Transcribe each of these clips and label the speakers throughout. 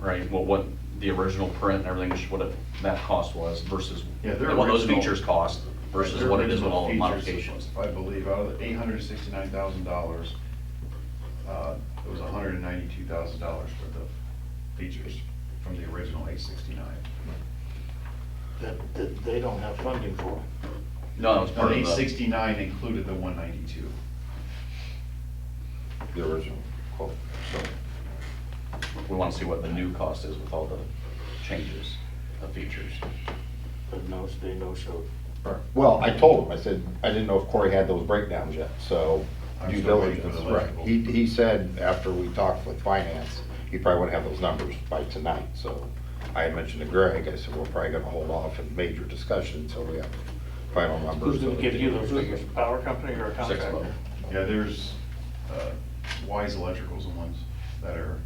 Speaker 1: right? Well, what the original print and everything, which what it- that cost was versus
Speaker 2: Yeah, their
Speaker 1: what those
Speaker 2: original-
Speaker 1: features cost versus
Speaker 2: Their
Speaker 1: what it is with
Speaker 2: original
Speaker 1: all the
Speaker 2: features,
Speaker 1: modifications.
Speaker 2: I believe, out of the eight hundred and sixty-nine thousand dollars, uh, it was hundred and ninety-two thousand dollars worth of features from the original eight sixty-nine.
Speaker 3: that, that they don't have funding for.
Speaker 1: No, that was
Speaker 2: Now,
Speaker 1: part
Speaker 2: the
Speaker 1: of
Speaker 2: eight
Speaker 1: the,
Speaker 2: sixty-nine included the one ninety-two.
Speaker 4: the original quote. So
Speaker 1: we want to see what the new cost is with all the changes of features.
Speaker 3: But no, they no show.
Speaker 4: Well, I told him, I said, I didn't know if Corey had those breakdowns yet, so
Speaker 2: I'm
Speaker 4: due
Speaker 2: still waiting for
Speaker 4: diligence,
Speaker 2: the
Speaker 4: right.
Speaker 2: legible.
Speaker 4: He, he said after we talked with finance, he probably wouldn't have those numbers by tonight, so I had mentioned to Greg, I said, we're probably gonna hold off in major discussion until we have final numbers.
Speaker 3: Who's gonna give you those figures, power company or a
Speaker 1: Six
Speaker 3: contractor?
Speaker 1: level.
Speaker 2: Yeah, there's, uh, Wise Electrical's the ones that are,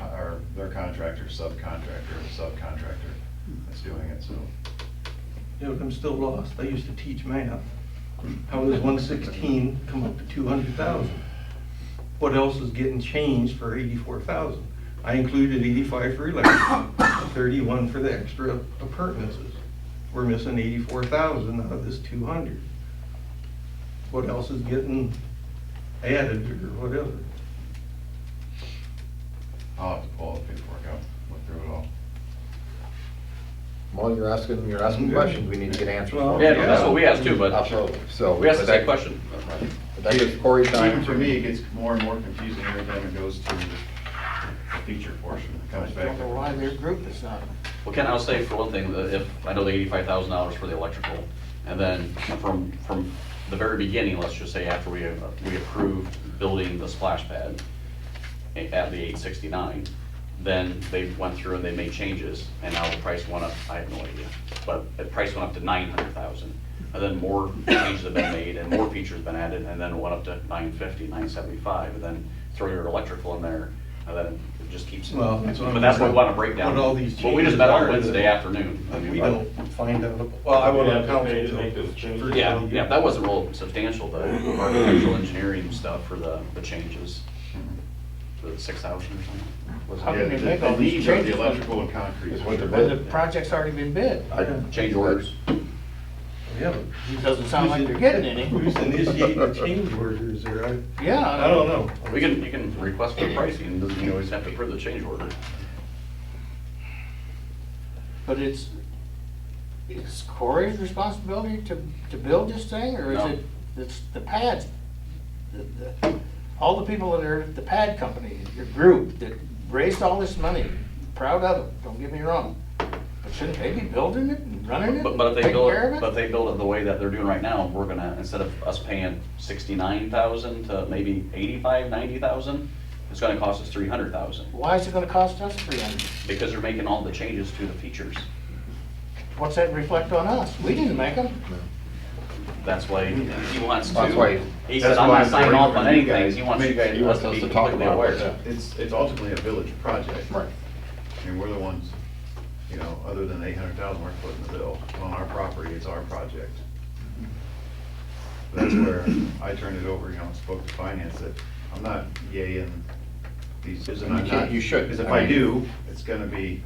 Speaker 2: are, their contractor, subcontractor, subcontractor that's doing it, so.
Speaker 5: Yeah, but I'm still lost. I used to teach math. How does one sixteen come up to two hundred thousand? What else is getting changed for eighty-four thousand? I included eighty-five for electric, thirty-one for the extra appurtenances. We're missing eighty-four thousand out of this two hundred. What else is getting added or whatever?
Speaker 2: I'll have to pull up the paperwork out, look through it all.
Speaker 4: Well, you're asking, you're asking questions, we need to get answers for.
Speaker 1: Yeah, no, that's what we asked too, but
Speaker 4: Absolutely, so.
Speaker 1: we asked the
Speaker 4: but that-
Speaker 1: same question.
Speaker 4: but That gives Corey time.
Speaker 2: Even for me, it gets more and more confusing every time it goes to the feature portion, it
Speaker 3: I
Speaker 2: comes back.
Speaker 3: don't know why their group is not.
Speaker 1: Well, Ken, I'll say for one thing, that if, I know the eighty-five thousand dollars for the electrical, and then from, from the very beginning, let's just say after we, uh, we approved building the splash pad at the eight sixty-nine, then they went through and they made changes, and now the price went up, I have no idea, but the price went up to nine hundred thousand. And then more changes have been made, and more features have been added, and then it went up to nine fifty, nine seventy-five, and then throw your electrical in there, and then it just keeps.
Speaker 5: Well, that's what I'm-
Speaker 1: But that's what we want to break down.
Speaker 5: What all these
Speaker 1: Well, we just met on
Speaker 5: changes are.
Speaker 1: Wednesday afternoon. I mean,
Speaker 5: We
Speaker 1: but-
Speaker 5: don't find out. Well, I
Speaker 6: Yeah,
Speaker 5: wasn't on
Speaker 6: they
Speaker 5: council.
Speaker 6: made-
Speaker 5: till
Speaker 6: make those changes.
Speaker 5: Thursday.
Speaker 1: Yeah, yeah, that wasn't real substantial, the architectural engineering stuff for the, the changes, the six thousand or something. Was
Speaker 3: How
Speaker 2: Yeah,
Speaker 3: can
Speaker 2: the
Speaker 3: they make all
Speaker 2: the
Speaker 3: these
Speaker 2: needs of the
Speaker 3: changes?
Speaker 2: electrical and concrete.
Speaker 4: Is what they're
Speaker 3: When the project's already been bid.
Speaker 1: it? Change orders.
Speaker 5: Yeah, but who's-
Speaker 3: Doesn't sound like they're getting any.
Speaker 5: Who's initiating the change orders there? I,
Speaker 3: Yeah.
Speaker 5: I don't know.
Speaker 1: We can, you can request for pricing, doesn't mean you always have to approve the change order.
Speaker 3: But it's, it's Corey's responsibility to, to build this thing, or is
Speaker 1: No.
Speaker 3: it, it's the pads? the- the- All the people that are, the pad company, your group that raised all this money, proud of them, don't get me wrong. But shouldn't they be building it and running it
Speaker 1: But, but
Speaker 3: and
Speaker 1: if they
Speaker 3: taking
Speaker 1: build,
Speaker 3: care
Speaker 1: it-
Speaker 3: of
Speaker 1: but if
Speaker 3: it?
Speaker 1: they build it the way that they're doing right now, we're gonna, instead of us paying sixty-nine thousand to maybe eighty-five, ninety thousand, it's gonna cost us three hundred thousand,
Speaker 3: Why is it gonna cost us three hundred?
Speaker 1: because they're making all the changes to the features.
Speaker 3: What's that reflect on us? We didn't make them.
Speaker 1: That's why he wants to.
Speaker 4: That's why-
Speaker 1: He
Speaker 4: that's
Speaker 1: says, I'm
Speaker 4: why I'm
Speaker 1: not signing off on
Speaker 4: bringing you
Speaker 1: anything,
Speaker 4: guys.
Speaker 1: he wants you guys,
Speaker 4: He
Speaker 1: us
Speaker 4: wants
Speaker 1: to
Speaker 4: us
Speaker 1: be
Speaker 4: to talk
Speaker 1: completely
Speaker 4: about
Speaker 1: aware.
Speaker 4: that.
Speaker 2: It's, it's ultimately a village project.
Speaker 4: Right.
Speaker 2: I mean, we're the ones, you know, other than eight hundred thousand, we're footing the bill on our property, it's our project. That's where I turned it over, you know, and spoke to finance that I'm not yay in these,
Speaker 4: You
Speaker 2: and I'm
Speaker 4: can't-
Speaker 2: not.
Speaker 4: you should.
Speaker 2: Because if I
Speaker 4: I mean-
Speaker 2: do, it's gonna be,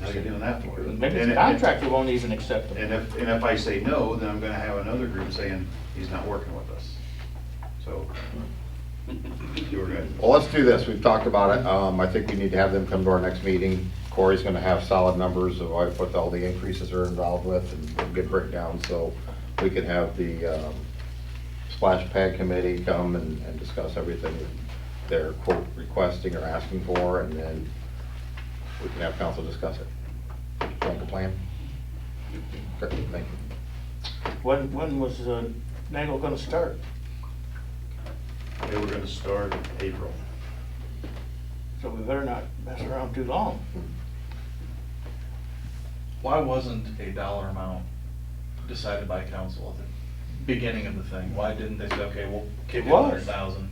Speaker 2: how you doing that for?
Speaker 3: Maybe
Speaker 2: And
Speaker 3: the
Speaker 2: it-
Speaker 3: contractor won't even accept them.
Speaker 2: And if, and if I say no, then I'm gonna have another group saying, he's not working with us. So, you were good.
Speaker 4: Well, let's do this, we've talked about it, um, I think we need to have them come to our next meeting. Corey's gonna have solid numbers of what- what all the increases are involved with and get breakdown, so we can have the, um, splash pad committee come and, and discuss everything they're quote requesting or asking for, and then we can have council discuss it. Like a plan? Okay, thank you.
Speaker 3: When, when was uh, Nagel gonna start?
Speaker 2: They were gonna start April.
Speaker 3: So we better not mess around too long.
Speaker 7: Why wasn't a dollar amount decided by council at the beginning of the thing? Why didn't they say, okay, we'll kick
Speaker 3: It
Speaker 7: in
Speaker 3: was.
Speaker 7: a hundred thousand?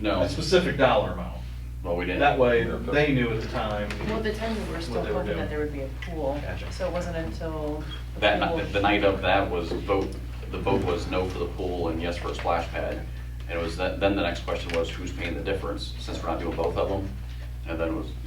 Speaker 1: No,
Speaker 7: A specific dollar amount.
Speaker 1: well, we didn't.
Speaker 7: That way, they knew at the time.
Speaker 8: Well, at the time, we were still
Speaker 7: What they were
Speaker 8: hoping
Speaker 7: doing.
Speaker 8: that there would be a pool,
Speaker 7: Gotcha.
Speaker 8: so it wasn't until.
Speaker 1: That,
Speaker 8: pool-
Speaker 1: ni- the night of that was vote, the vote was no for the pool and yes for a splash pad. And it was, that- then the next question was, who's paying the difference, since we're not doing both of them? And then it was,